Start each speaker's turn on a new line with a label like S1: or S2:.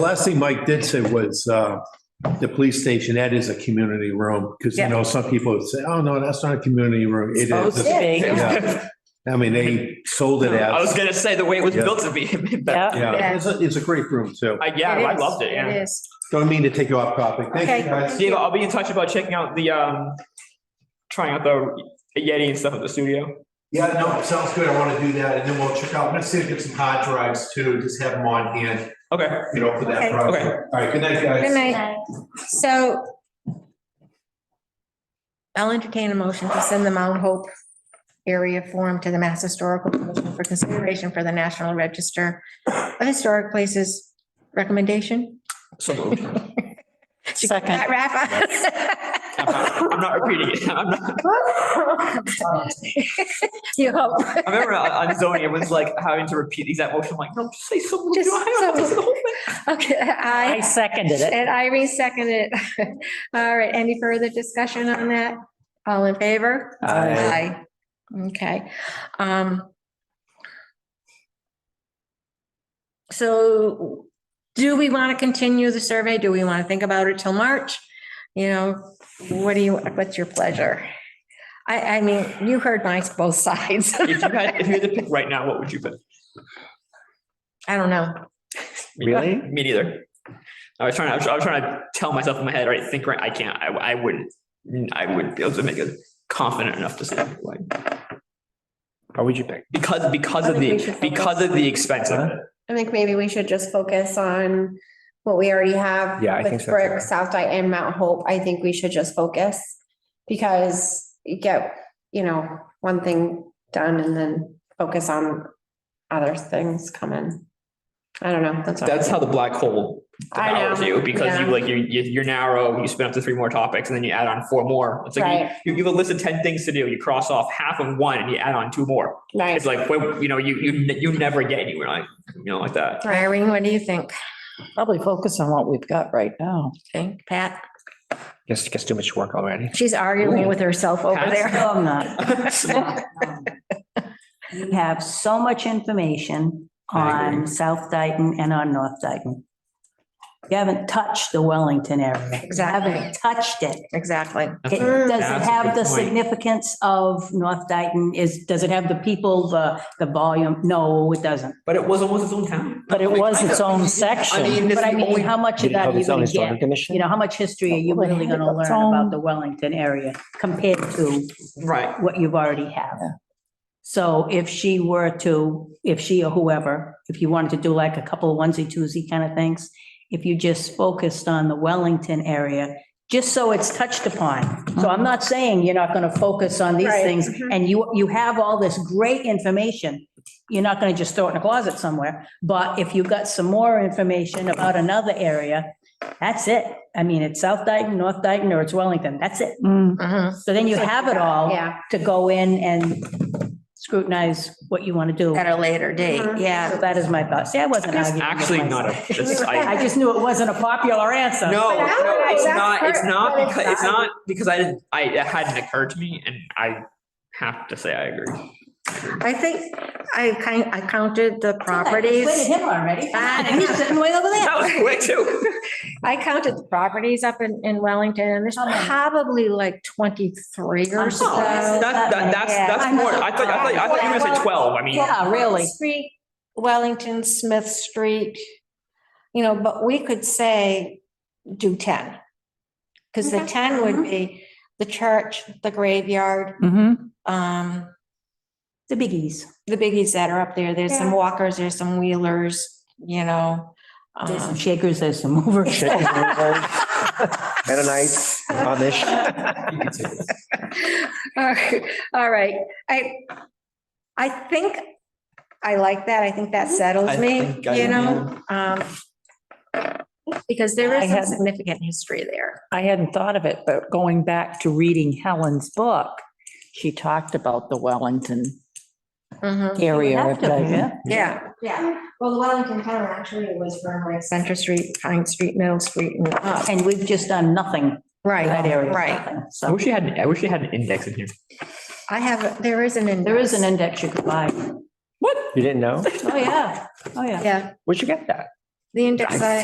S1: Last thing Mike did say was, uh, the police station, that is a community room, because you
S2: Yeah.
S1: know, some people would say, oh, no, that's not a community room. It
S2: Supposed to
S1: is.
S2: be.
S1: Yeah. I mean, they sold it
S3: I was
S1: as,
S3: gonna say the way it was
S1: Yeah.
S3: built to be. but-
S2: Yeah.
S1: yeah, it's a, it's a great room too.
S3: I, yeah, I
S2: is.
S3: loved it. Yeah.
S2: It is.
S1: Don't mean to take you off topic. Thank
S2: Okay.
S1: you guys.
S3: Diego, I'll be in touch about checking out the um, trying out the Yeti and stuff at the studio.
S4: Yeah, no, sounds good. I want to do that and then we'll check out, let's see if we get some hard drives too, just have them on hand,
S3: Okay.
S4: you know, for
S2: Okay.
S4: that project.
S3: Okay.
S4: All right, good night, guys.
S2: Good night. So I'll entertain a motion to send the Mount Hope area form to the Mass Historical Commission for consideration for the National Register of Historic Places recommendation.
S3: So moved.
S2: Second.
S3: I'm not- I'm not repeating it. I'm not.
S2: You hope.
S3: I remember on on zoning, everyone's like having to repeat the exact motion. I'm like, no, just say so moved.
S2: Just
S3: I don't have to
S2: so
S3: say the whole thing.
S2: Okay,
S5: I
S2: I,
S5: seconded it.
S2: and Irene seconded it. All right, any further discussion on that? All in favor? Aye. Okay, um. So do we want to continue the survey? Do we want to think about it till March? You know, what do you, what's your pleasure? I, I mean, you heard my both sides.
S3: If you had, if you had to pick right now, what would you pick?
S2: I don't know.
S3: Really? Me neither. I was trying, I was, I was trying to tell myself in my head, right, think right, I can't, I, I wouldn't, I wouldn't be able to make it confident enough to say that, like.
S6: How would you pick?
S3: Because, because of
S7: I think we
S3: the,
S7: should focus.
S3: because of the expense of it.
S7: I think maybe we should just focus on what we already have.
S6: Yeah, I think
S7: With
S6: so, too.
S7: Brick, South Dyke and Mount Hope, I think we should just focus. Because you get, you know, one thing done and then focus on other things coming. I don't know, that's. what I
S3: That's
S7: think.
S3: how the black hole
S7: I know,
S3: devours you, because you
S7: yeah.
S3: like, you, you- you're narrow, you spin up to three more topics, and then you add on four more. It's like,
S7: Right,
S3: you, you have a list of ten things to do, you cross off half of one, and you add on two more.
S7: right.
S3: It's like, well, you know, you, you, ne- you never get anywhere, like, you know, like that.
S2: Irene, what do you think?
S5: Probably focus on what we've got right now.
S2: Think, Pat?
S6: Guess, guess too much work already.
S2: She's arguing with herself over
S3: Pat's-
S2: there.
S5: No, I'm not. You have so much information
S3: I agree.
S5: on South Dayton and on North Dayton. You haven't touched the Wellington area. You
S2: Exactly,
S5: haven't touched it.
S2: exactly.
S3: That's
S5: It,
S3: a-
S5: does it
S3: that's a
S5: have
S3: good
S5: the
S3: point.
S5: significance of North Dayton? Is, does it have the people, the, the volume? No, it doesn't.
S3: But it was almost its own town.
S5: But it was its own section.
S3: I mean, this
S5: But I
S3: is only-
S5: mean, how much of
S6: Did it
S5: that
S6: have
S5: are you
S6: its own
S5: gonna
S6: historical
S5: get? You
S6: commission?
S5: know, how much history are you really gonna learn about the Wellington area compared to
S3: Right.
S5: what you've already have? So if she were to, if she or whoever, if you wanted to do like a couple of onesie twosie kind of things, if you just focused on the Wellington area, just so it's touched upon. So I'm not saying you're not gonna focus on these
S7: Right,
S5: things
S7: mhm.
S5: and you, you have all this great information. You're not gonna just throw it in a closet somewhere, but if you've got some more information about another area, that's it. I mean, it's South Dayton, North Dayton, or it's Wellington, that's it.
S2: Mhm.
S5: So then you have it all
S7: Yeah,
S5: to go in and scrutinize what you want to do.
S2: At a later date,
S7: Mhm.
S2: yeah.
S5: So that is my thought. See, I wasn't
S3: It's
S5: arguing. with
S3: actually not
S5: myself.
S3: a, it's, I,
S5: I just knew it wasn't a popular answer.
S3: no,
S7: But how
S3: no,
S7: do I-
S3: it's
S7: that's
S3: not, it's
S7: correct,
S3: not
S7: but it's
S3: because, it's
S7: not.
S3: not because I didn't, I, it hadn't occurred to me, and I have to say I agree.
S2: I think I kind, I counted the
S5: Wait, it's
S2: properties.
S5: him already.
S2: Ah.
S5: He's sitting way over there.
S3: That was quick too.
S2: I counted the properties up in, in Wellington and there's
S5: How many?
S2: probably like twenty-three or
S5: I'm
S2: so.
S5: sorry.
S3: That, that, that's, that's
S2: Yeah.
S3: more, I thought, I thought, I thought you were gonna say twelve, I mean.
S5: Yeah,
S2: Uh,
S5: really.
S2: Street, Wellington, Smith Street, you know, but we could say do ten. Because the
S7: Okay.
S2: ten would be the church, the graveyard,
S8: Mm-hmm.
S5: The
S2: um,
S5: biggies.
S2: the biggies that are up there, there's some walkers, there's some wheelers, you know.
S5: There's some
S2: um,
S5: shakers, there's some movers.
S6: Shakers, movers. Mennonites, Amish.
S2: All right, I, I think I like that. I think that settles
S3: I
S2: me,
S3: think I
S2: you know? Um, Because there is some significant history there.
S8: I hadn't thought of it, but going back to reading Helen's book, she talked about the Wellington
S2: Mhm.
S8: area.
S5: have
S8: of
S5: to, yeah.
S8: Dayton.
S2: Yeah, yeah. Well, the Wellington town actually was from like Center Street, Pine Street, Middle Street and up.
S5: And we've just done nothing in that
S2: Right,
S5: area.
S2: right.
S5: nothing.
S3: I
S5: So
S3: wish you had, I wish you had an index in here.
S2: I have, there is an.
S5: there
S2: index.
S5: is an index you could buy.
S6: You didn't know?
S5: Oh, yeah. Oh, yeah.
S2: Yeah,
S6: Where'd you get that?
S2: the index I